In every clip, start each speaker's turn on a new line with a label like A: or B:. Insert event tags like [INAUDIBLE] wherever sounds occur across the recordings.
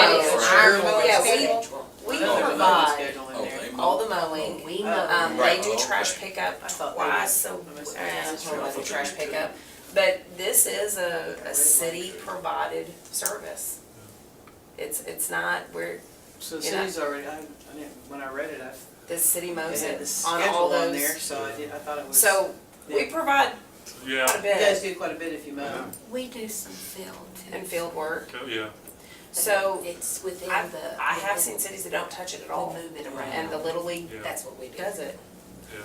A: it's
B: our
A: your
B: mowing
A: yeah, we-
B: schedule.
A: We
C: No, the mowing
A: provide
C: schedule in
D: Oh,
C: there.
D: they [LAUGHS]
E: [LAUGHS]
A: all
D: mow.
A: the mowing, we,
B: Oh,
A: um,
D: right,
A: they do
D: oh,
A: trash
D: okay.
A: pickup
B: I thought they
A: twice, a-
B: I must
A: uh,
B: have
A: I
B: missed
A: don't know about the
D: it.
A: trash pickup. But this is a, a city provided service. It's, it's not, we're,
C: So the
A: you know.
C: city's already, I, I didn't, when I read it, I,
A: the city
C: it
A: mows
C: had
A: it
C: the
A: on
C: schedule
A: all
C: on there,
A: those.
C: so I did, I thought it was.
A: So we
C: Yeah.
A: provide quite a
F: Yeah,
C: You guys
A: bit
C: do quite a bit if you mow.
G: We do some field too.
A: in field work.
F: co- yeah.
G: but
A: So
G: It's within the.
A: I, I have seen
G: within-
A: cities that don't touch it at
G: We
A: all
G: move it around.
A: and the Little League
F: Yeah.
G: That's what we do.
A: does it.
F: Yeah.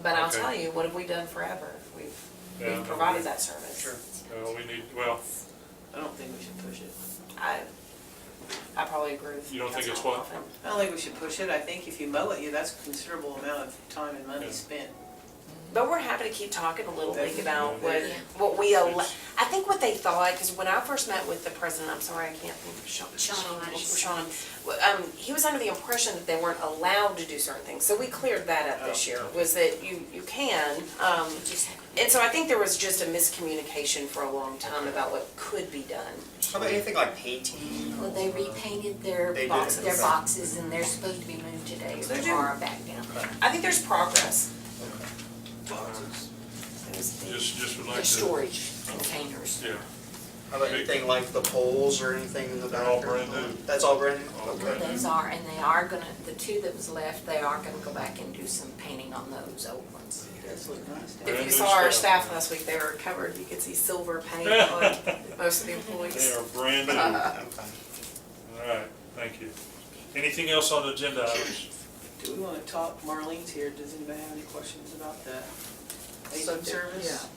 A: But I'll
F: Okay.
A: tell you, what have we done forever? We've,
F: Yeah.
A: we've provided that service.
C: Sure.
F: Uh, we need, well,
C: I don't think we should push it.
A: I, I probably agree with.
F: You don't think it's
A: Councilman
F: what?
A: Hoffman.
C: I don't think we should push it. I think if you mow it, you, that's a considerable amount of time and money
F: Yeah.
C: spent.
A: But we're happy to keep talking a little bit
C: Definitely.
A: about what,
G: Yeah.
A: what we, al- I think what they thought, because when I first met with the president, I'm sorry, I can't think of Sean.
G: Sean, I just-
A: Sean, well, um, he was under the impression that they weren't allowed to do certain things, so we cleared that up this
F: Oh.
A: year, was that you, you can, um,
G: Just-
A: and so I think there was just a miscommunication for a long time about what could be done.
H: How about anything like painting?
G: Well, they repainted their
H: They did.
G: boxes, their boxes and they're supposed to be moved today
A: They
G: or
A: do.
G: tomorrow back down.
A: I think there's progress.
H: Boxes.
A: It was the-
F: just, just would
G: The
F: like to,
G: storage containers.
F: yeah,
H: How about anything like the poles or anything in the
F: They're all
H: bathroom?
F: brand new.
H: That's all brand new?
F: All
H: Okay.
F: brand
G: Those are, and they are gonna, the two that was left, they are gonna go back and do some painting on those old ones.
C: It does look nice. doesn't it?
A: If you
F: Brand new
A: saw our
F: stuff.
A: staff last week, they were covered, you could see silver
F: [LAUGHS]
A: paint on most of the
F: they
A: employees.
F: are brand new. All
H: Okay.
F: right, thank you. Anything else on the agenda items?
C: Do we wanna talk, Marlene's here, does anybody have any questions about the aging
A: Subject,
C: service?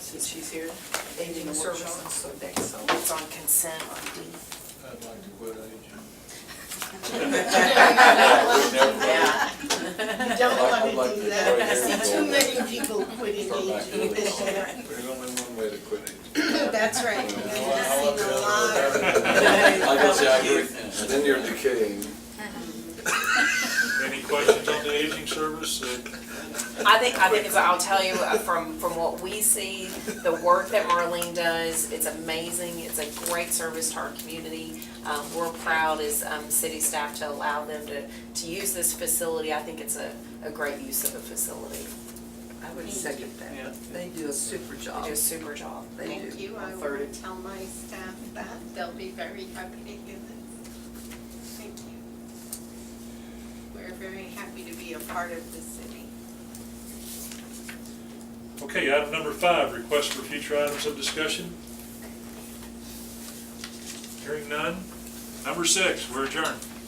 C: Since she's here.
A: Aging services, so they- so it's on consent on D.
D: I'd like to quit aging.
C: [LAUGHS] Yeah.
E: Don't
D: I'd
E: wanna
D: like to
E: do that, I
D: go
E: see
D: there
E: too
D: and
E: many people quitting
D: Start back
E: aging.
D: to it. There's only one way to quit aging.
E: [LAUGHS]
D: [LAUGHS]
E: That's right,
D: You know,
E: because
D: I- I
E: I've
D: love the other way. I guess,
E: seen a lot.
D: yeah, I
E: [LAUGHS]
D: agree. Then you're decaying.
F: Any questions on the aging service? Uh,
A: I think, I think, I'll tell you, uh, from, from what we see, the work that Marlene does, it's amazing, it's a great service to our community. Um, we're proud as, um, city staff to allow them to, to use this facility, I think it's a, a great use of a facility.
I: I would second
C: Yeah.
I: that. They do a super
A: They
I: job.
A: do a super job.
I: They do.
E: Thank you, I
C: Thirty.
E: will tell my staff that, they'll be very happy to hear this. Thank you. We're very happy to be a part of the city.
F: Okay, item number five, request for future items of discussion. Hearing none. Number six, we're adjourned.